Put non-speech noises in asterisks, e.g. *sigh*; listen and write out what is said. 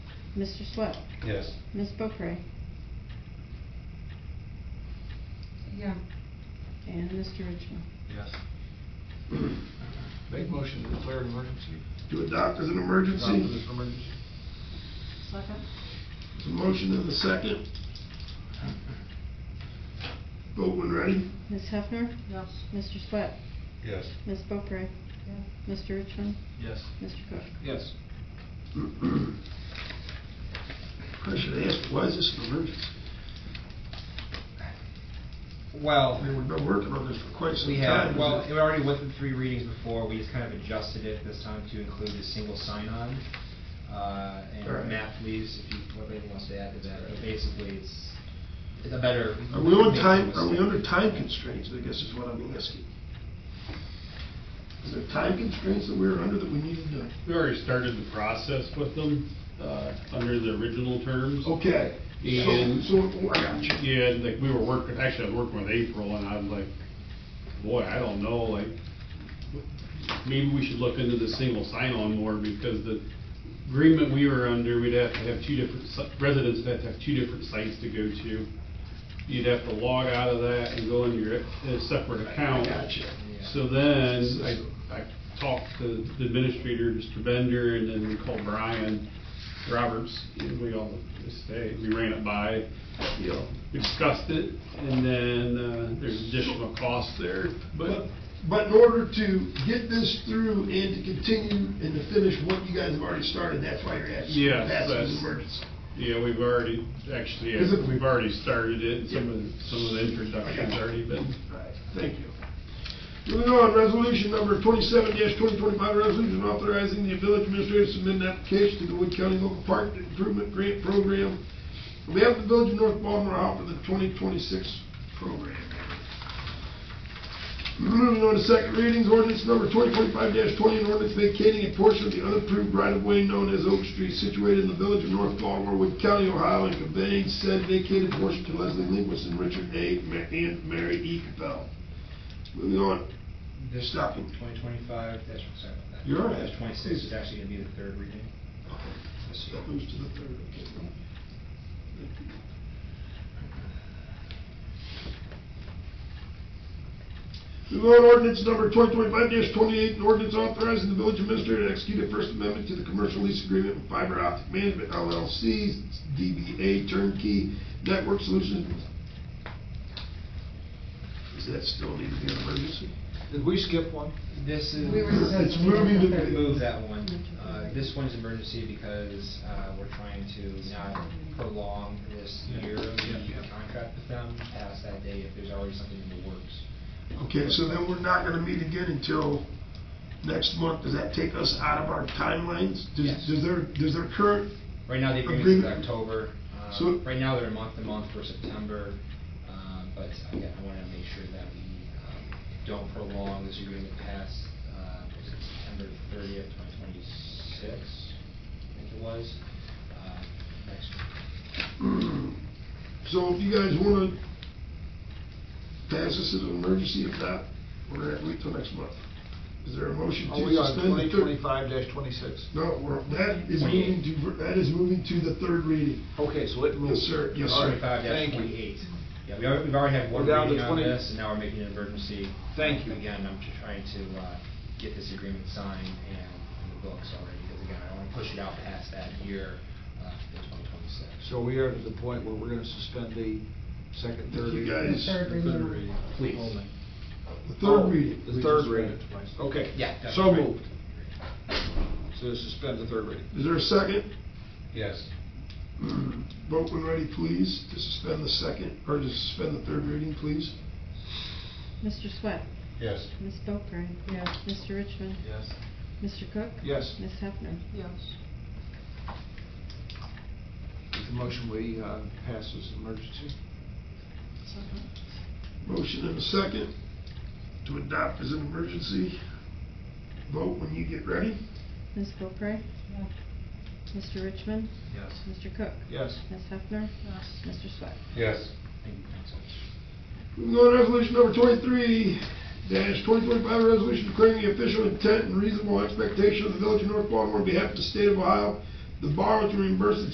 Mr. Swett, Yes. Ms. Boeckrey, Yeah. and Mr. Richmond. Yes. Make motion to declare an emergency. To adopt as an Adopt this emergency. emergency. Second. There's a motion and a second. Vote when ready. *clears throat* Ms. Hefner, Yes. Mr. Swett, Yes. Ms. Boeckrey, Mr. Richmond, Yes. Mr. Cook. Yes. I should ask, why is this an emergency? Well, I mean, we've been working on this for quite some we time. have, well, it already went through three readings before, we just kind of adjusted it this time to include a single sign-on. Uh, Alright. And Matt leaves, if you, what anyone wants to add to that, but basically, it's, it's a better. Are we on time, are we under time constraints, I guess is what I'm asking. Is there time constraints that we're under that we need to do? We already started the process with them, uh, under the original terms. Okay. And- So, so, I got you. Yeah, and, like, we were working, actually, I was working with April, and I'm like, boy, I don't know, like, maybe we should look into the single sign-on more, because the agreement we were under, we'd have to have two different, si- residents would have to have two different sites to go to. You'd have to log out of that and go into your, in a separate I account. got you. So then, I, I talked to the administrator, Mr. Bender, and then we called Brian Roberts, and we all, this day, we ran it by, Yeah. we discussed it, and then, uh, there's additional cost there, But, but, but in order to get this through and to continue and to finish what you guys have already started, that's why you're asking. Yeah, That's an that's- emergency. yeah, we've already, actually, Is it- yeah, we've already started it, and some of, the- some of the introductions already been. Alright, Thank you. Moving on, resolution number twenty-seven twenty twenty-five, resolution authorizing the village administrator to submit an application to the Wood County Local Park Improvement Grant Program. We have the village of North Baltimore for the twenty twenty-six program. Moving on to second readings, ordinance number twenty twenty-five twenty, an ordinance vacating a portion of the unapproved right-of-way known as Oak Street situated in the village of North Baltimore, Wood County, Ohio, and conveying said vacated portion to Leslie Linguist and Richard A. Ma- and Mary E. Capel. Moving on, This Stop it. Twenty twenty-five, that's, sorry about that. You're all right. Dash twenty-six is actually gonna be the third reading. This That year. moves to the third, okay. Move on ordinance number twenty twenty-five twenty-eight, an ordinance authorizing the village administrator to execute a first amendment to the commercial lease agreement with Fiber Optic Management LLC, DBA Turnkey Network Solutions. Is that still need to be an emergency? Did we skip one? This is. We were It's moving to Could the. move that one. Uh, This one's emergency because uh, we're trying to not prolong this year of the contract with them past that date if there's already something in the works. Okay, so then we're not gonna meet again until next month. Does that take us out of our timelines? Does- Yes. Does their, does their current, Right now, the agreement is Agreement. October. Uh, So- Right now, they're month to month for September, uh, but again, I want to make sure that we um, don't prolong this agreement past, uh, was it September thirtieth, twenty twenty-six, I think it was. Uh, Next Mm. so if you guys wanna pass this as an emergency, if not, we're gonna have to wait till next month. Is there a motion Are Oh, we to on suspend the twenty third? twenty-five twenty-six? No, we're, that is moving to, that is moving to the third reading. Okay, so Yes, it moves. sir, yes, sir. All right, Twenty-five Thank you. twenty-eight. Yeah, we already, we've already had one We're down to reading on 20 this, and now we're making an emergency. Thank you. Again, I'm just trying to, uh, get this agreement signed and in the books already, because again, I don't wanna push it out past that year, uh, in twenty twenty-six. So we are to the point where we're gonna suspend the second, third. You reading? guys, The third the third reading. reading. Please. The Oh, third reading. The third reading. Okay. Yeah, that's So right. moved. So to suspend the third reading. Is there a second? Yes. Vote when ready, please, to suspend the second, or to suspend the third reading, please. Mr. Swett, Yes. Ms. Boeckrey, Yes. Mr. Richmond, Yes. Mr. Cook. Yes. Ms. Hefner. Yes. The motion we uh, pass as emergency. Motion and a second to adopt as an emergency. Vote when you get ready. Ms. Boeckrey, Mr. Richmond, Yes. Mr. Cook. Yes. Ms. Hefner, Yes. Mr. Swett. Yes. Thank you, council. Moving on to resolution number twenty-three dash twenty twenty-five, resolution declaring the official intent and reasonable expectation of the village of North Baltimore on behalf of the state of Ohio, the borrower to reimburse its